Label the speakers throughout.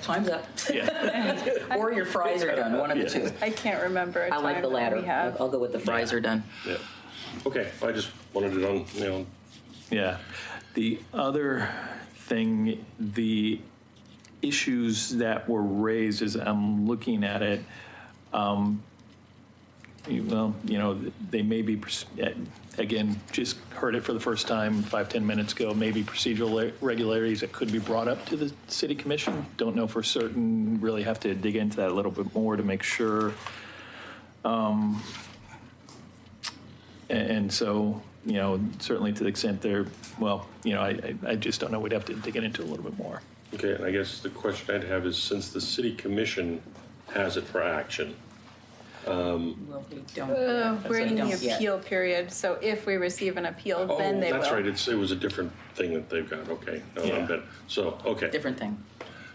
Speaker 1: Time's up.
Speaker 2: Yeah.
Speaker 1: Or your fries are done, one of the two.
Speaker 3: I can't remember. I
Speaker 1: I like the latter.
Speaker 3: We have.
Speaker 1: I'll go with the fries are done.
Speaker 2: yeah.
Speaker 4: Okay, I just wanted it on, you know,
Speaker 2: Yeah. The other thing, the issues that were raised as I'm looking at it, um, you- well, you know, they may be, pers- eh, again, just heard it for the first time five ten minutes ago, maybe procedural le- regularities that could be brought up to the city commission. Don't know for certain, really have to dig into that a little bit more to make sure. Um, a- And so, you know, certainly to the extent there, well, you know, I, I- I just don't know, we'd have to dig it into a little bit more.
Speaker 4: okay, and I guess the question I'd have is, since the city commission has it for action,
Speaker 1: Well, we don't.
Speaker 3: Uh, we're in the
Speaker 1: Don't yet.
Speaker 3: appeal period, so if we receive an appeal,
Speaker 4: oh,
Speaker 3: then they
Speaker 4: that's
Speaker 3: will.
Speaker 4: right, it's, it was a different thing that they've got, okay. No, I'm
Speaker 2: Yeah.
Speaker 4: done. So, okay,
Speaker 1: Different thing.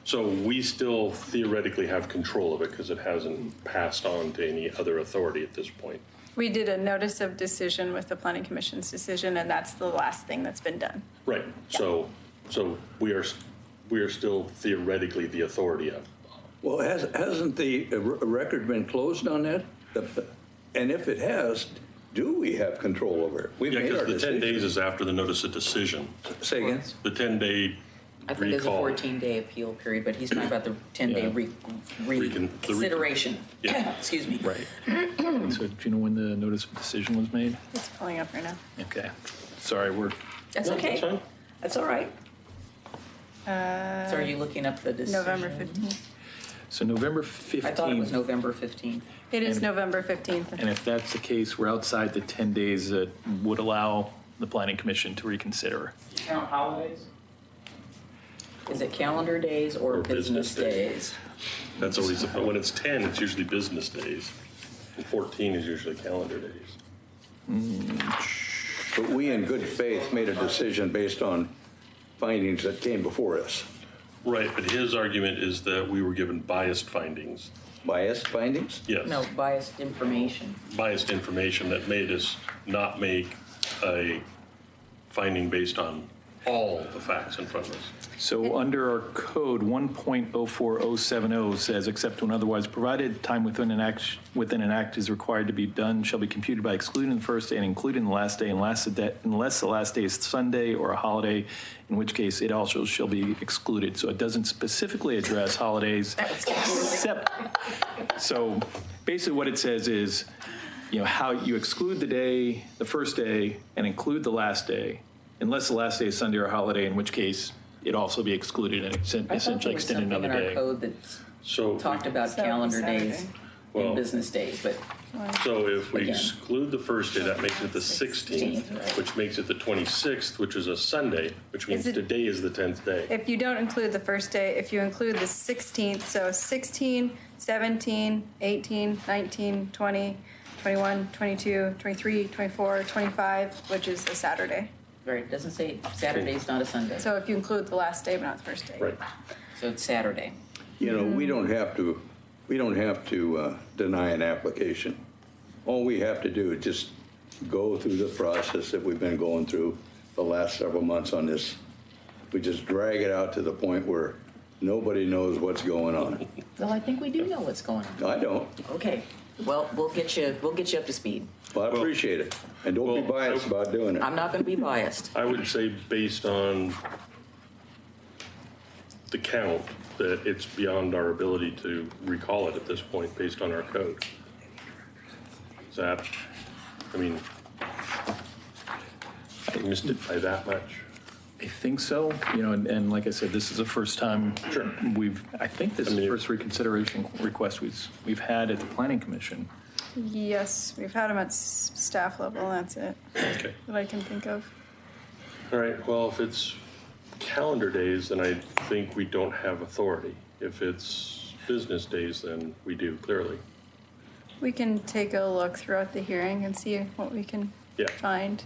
Speaker 4: so we still theoretically have control of it because it hasn't passed on to any other authority at this point.
Speaker 3: We did a notice of decision with the planning commission's decision, and that's the last thing that's been done.
Speaker 4: Right, so, so we are, s- we are still theoretically the authority of,
Speaker 5: Well, has, hasn't the uh, r- record been closed on that? The- And if it has, do we have control over it? We've
Speaker 4: yeah,
Speaker 5: made our
Speaker 4: because the 10 days
Speaker 5: decision.
Speaker 4: is after the notice of decision.
Speaker 5: Say again?
Speaker 4: The 10-day
Speaker 1: I think there's a
Speaker 4: recall.
Speaker 1: 14-day appeal period, but he's talking about the 10-day
Speaker 2: Yeah.
Speaker 1: re-
Speaker 4: Recon- the
Speaker 1: reconsideration.
Speaker 4: Yeah.
Speaker 1: Excuse me.
Speaker 2: Right. So do you know when the notice of decision was made?
Speaker 3: It's pulling up right now.
Speaker 2: Okay. Sorry, we're,
Speaker 1: That's
Speaker 4: No,
Speaker 1: okay.
Speaker 4: that's fine.
Speaker 1: That's all right.
Speaker 3: Uh,
Speaker 1: So are you looking up the decision?
Speaker 3: November 15th.
Speaker 2: so November 15th.
Speaker 1: I thought it was November 15th.
Speaker 3: It is
Speaker 2: And-
Speaker 3: November 15th.
Speaker 2: And if that's the case, we're outside the 10 days that would allow the planning commission to reconsider.
Speaker 6: Count holidays?
Speaker 1: Is it calendar days or
Speaker 4: Or
Speaker 1: business
Speaker 4: business days.
Speaker 1: days?
Speaker 4: That's always, the- when it's 10, it's usually business days. And 14 is usually calendar days.
Speaker 5: But we in good faith made a decision based on findings that came before us.
Speaker 4: Right, but his argument is that we were given biased findings.
Speaker 5: Biased findings?
Speaker 4: Yes.
Speaker 1: No, biased information.
Speaker 4: Biased information that made us not make a finding based on all the facts in front of us.
Speaker 2: So under our code, 1.04070 says, except when otherwise provided, time within an act, within an act is required to be done shall be computed by excluding the first day and including the last day unless the, de- unless the last day is Sunday or a holiday, in which case it also shall be excluded. So it doesn't specifically address holidays. Except, so basically what it says is, you know, how you exclude the day, the first day, and include the last day, unless the last day is Sunday or holiday, in which case it'd also be excluded and extend-
Speaker 1: I thought
Speaker 2: essentially
Speaker 1: there was
Speaker 2: extend
Speaker 1: something in
Speaker 2: another
Speaker 1: our
Speaker 2: day.
Speaker 1: code that's
Speaker 4: So,
Speaker 1: talked about
Speaker 3: So,
Speaker 1: calendar days
Speaker 3: Saturday.
Speaker 1: and
Speaker 4: Well-
Speaker 1: business days, but
Speaker 4: so if we
Speaker 1: Again.
Speaker 4: exclude the first day, that makes it the 16th,
Speaker 1: 16th, right.
Speaker 4: which makes it the 26th, which is a Sunday, which means
Speaker 3: Is it-
Speaker 4: today is the 10th day.
Speaker 3: If you don't include the first day, if you include the 16th, so 16, 17, 18, 19, 20, 21, 22, 23, 24, 25, which is a Saturday.
Speaker 1: right, it doesn't say Saturday's not a Sunday.
Speaker 3: So if you include the last day but not the first day.
Speaker 4: Right.
Speaker 1: So it's Saturday.
Speaker 5: You know, we don't have to, we don't have to uh, deny an application. All we have to do is just go through the process that we've been going through the last several months on this. We just drag it out to the point where nobody knows what's going on.
Speaker 1: Well, I think we do know what's going on.
Speaker 5: I don't,
Speaker 1: Okay, well, we'll get you, we'll get you up to speed.
Speaker 5: but I appreciate it. And don't be
Speaker 4: Well, I-
Speaker 5: biased about doing it.
Speaker 1: I'm not gonna be biased.
Speaker 4: I would say based on the count, that it's beyond our ability to recall it at this point, based on our code. Is that, I mean, I missed it by that much.
Speaker 2: I think so, you know, and, and like I said, this is the first time
Speaker 4: Sure.
Speaker 2: we've, I think this is the
Speaker 4: mean-
Speaker 2: first reconsideration request we've, we've had at the planning commission.
Speaker 3: Yes, we've had them at s- staff level, that's it,
Speaker 4: Okay.
Speaker 3: that I can think of.
Speaker 4: All right, well, if it's calendar days, then I think we don't have authority. If it's business days, then we do, clearly.
Speaker 3: We can take a look throughout the hearing and see what we can
Speaker 4: Yeah.
Speaker 3: find.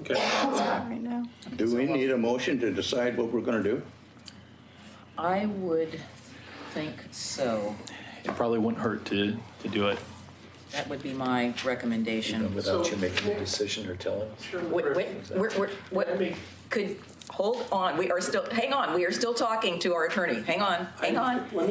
Speaker 4: Okay,
Speaker 3: That's not right now.
Speaker 5: Do we need a motion to decide what we're going to do?
Speaker 1: I would think so.
Speaker 2: It probably wouldn't hurt to, to do it.
Speaker 1: That would be my recommendation.
Speaker 6: without you making a decision or telling us.
Speaker 1: Wait, wait, we're, we're, what, could, hold on, we are still, hang on, we are still talking to our attorney. Hang on, hang on.